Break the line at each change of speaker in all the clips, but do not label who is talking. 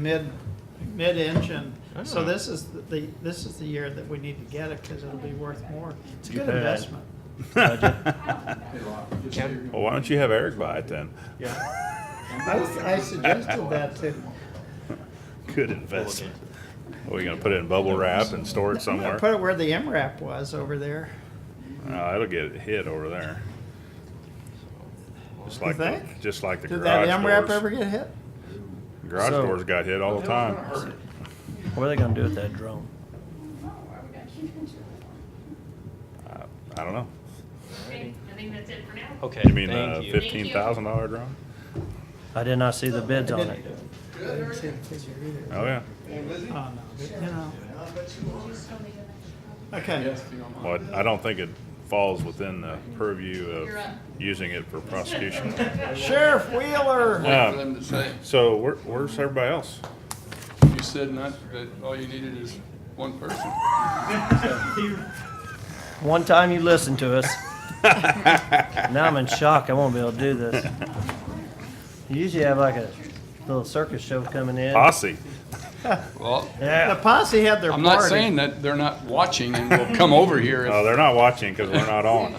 mid, mid-inch, and so
Ah.
this is the, this is the year that we need to get it, because it'll be worth more. It's a
You
good
had-
investment.
Well, why don't you have Eric buy it then?
Yeah. I was- I suggested that too.
Good investment. Are we gonna put it in bubble wrap and store it somewhere?
Put it where the MRAP was over there.
No, it'll get hit over there. Just
You
like, the-
think?
just like the
Did that MRAP
garage
ever
doors.
get hit?
Garage
So-
doors got hit all the time.
What are they gonna do with that drone?
I I don't know.
Okay, I think that's it for now.
Okay,
You mean uh, the
thank you.
fifty-
fifteen thousand dollar drone?
I did not see the bids on it.
I didn't see the figure either.
Oh, yeah.
Oh, no, but, you know. Okay,
Well, I- I don't think it falls within the purview of
You're up.
using it for prosecution.
Sheriff Wheeler,
Um,
Wait for them to say.
So where, where's everybody else?
You said not, that all you needed is one person.
One time you listened to us. Now I'm in shock. I won't be able to do this. You usually have like a little circus show coming in.
Posse.
Well,
the
Yeah.
posse had their
I'm
party.
not saying that they're not watching and will come over here
Oh,
if-
they're not watching because we're not on.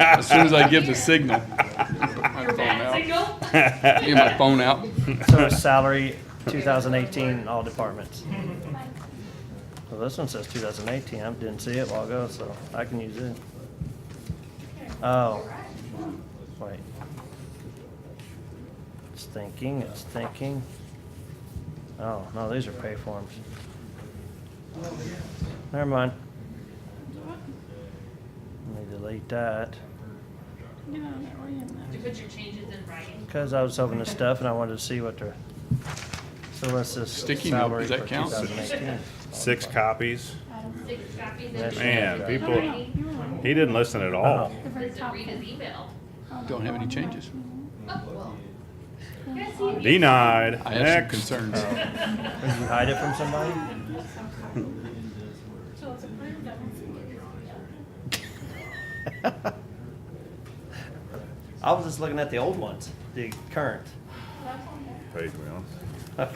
as soon as I give the signal. My
Your
phone
bad
out.
signal?
Get my phone out.
So it's salary 2018 in all departments. Well, this one says 2018. I didn't see it while ago, so I can use it. Oh. Wait. It's thinking, it's thinking. Oh, no, these are pay forms. Never mind. Let me delete that.
Did you put your changes in writing?
Because I was hoping to stuff and I wanted to see what their, so what's this
Sticky note,
salary
does
for
that count?
2018?
Six copies.
Six copies in
Yes,
Man,
writing?
people- He didn't listen at
Oh.
all.
Does it read his email?
Don't have any changes.
Yes, he-
Denied.
I have some
Next.
concerns.
Did you hide it from somebody? I was just looking at the old ones, the current.
Page me on.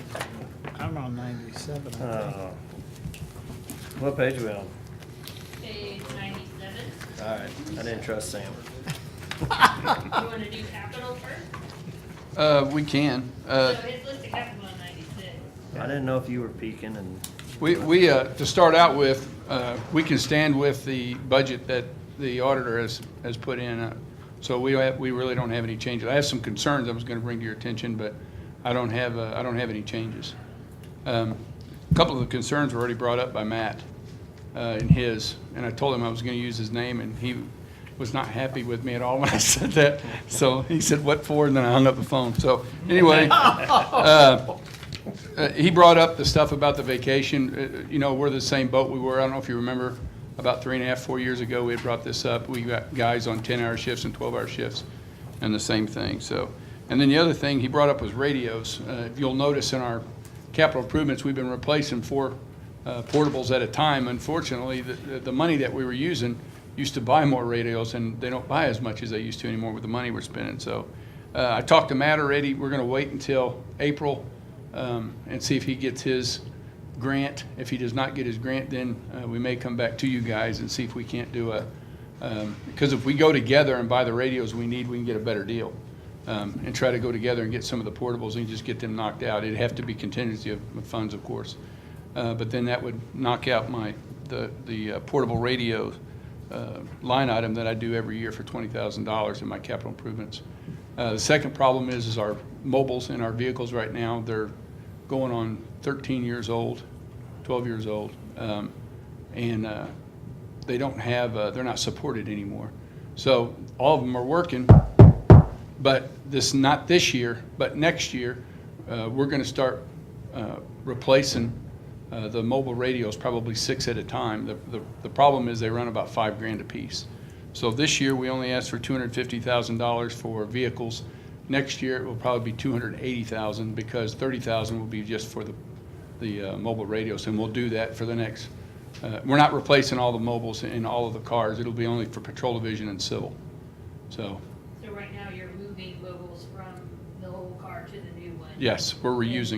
I'm on ninety-seven, I think.
Uh, What page are we on?
Page ninety-seven.
All right, I didn't trust Sam.
You wanna do capital first?
Uh, we can.
So
Uh,
his list of capital on ninety-six.
I didn't know if you were peeking and,
we, we, uh, to start out with, uh, we can stand with the budget that the auditor has, has put in. uh, So we, have- we really don't have any changes. I have some concerns I was gonna bring to your attention, but I don't have, uh, I don't have any changes. Um, A Couple of the concerns were already brought up by Matt uh, in his, and I told him I was gonna use his name, and he was not happy with me at all when I said that. So he said, what for? And then I hung up the phone. So anyway, uh, uh, he brought up the stuff about the vacation. Uh, You know, we're the same boat we were. I don't know if you remember, about three and a half, four years ago, we had brought this up. We got guys on 10-hour shifts and 12-hour shifts and the same thing, so. And then the other thing he brought up was radios. Uh, If you'll notice in our capital improvements, we've been replacing four uh, portables at a time. Unfortunately, the- the the money that we were using used to buy more radios, and they don't buy as much as they used to anymore with the money we're spending. So uh, I talked to Matt already. We're going to wait until April um, and see if he gets his grant. If he does not get his grant, then uh, we may come back to you guys and see if we can't do a, um, because if we go together and buy the radios we need, we can get a better deal. um, And try to go together and get some of the portables and just get them knocked out. It'd have to be contingency of of funds, of course. Uh, But then that would knock out my, the, the uh, portable radio uh, line item that I do every year for $20,000 in my capital improvements. Uh, The second problem is, is our mobiles in our vehicles right now, they're going on 13 years old, 12 years old. um, And uh, they don't have, uh, they're not supported anymore. So all of them are working, but this, not this year, but next year, uh, we're going to start uh, replacing uh, the mobile radios, probably six at a time. The- The the problem is they run about five grand apiece. So this year, we only asked for $250,000 for vehicles. Next year, it will probably be $280,000 because $30,000 will be just for the the uh, mobile radios, and we'll do that for the next, uh, we're not replacing all the mobiles in all of the cars. It'll be only for patrol division and civil. So
So right now, you're moving mobiles from the old car to the new one.
Yes, we're reusing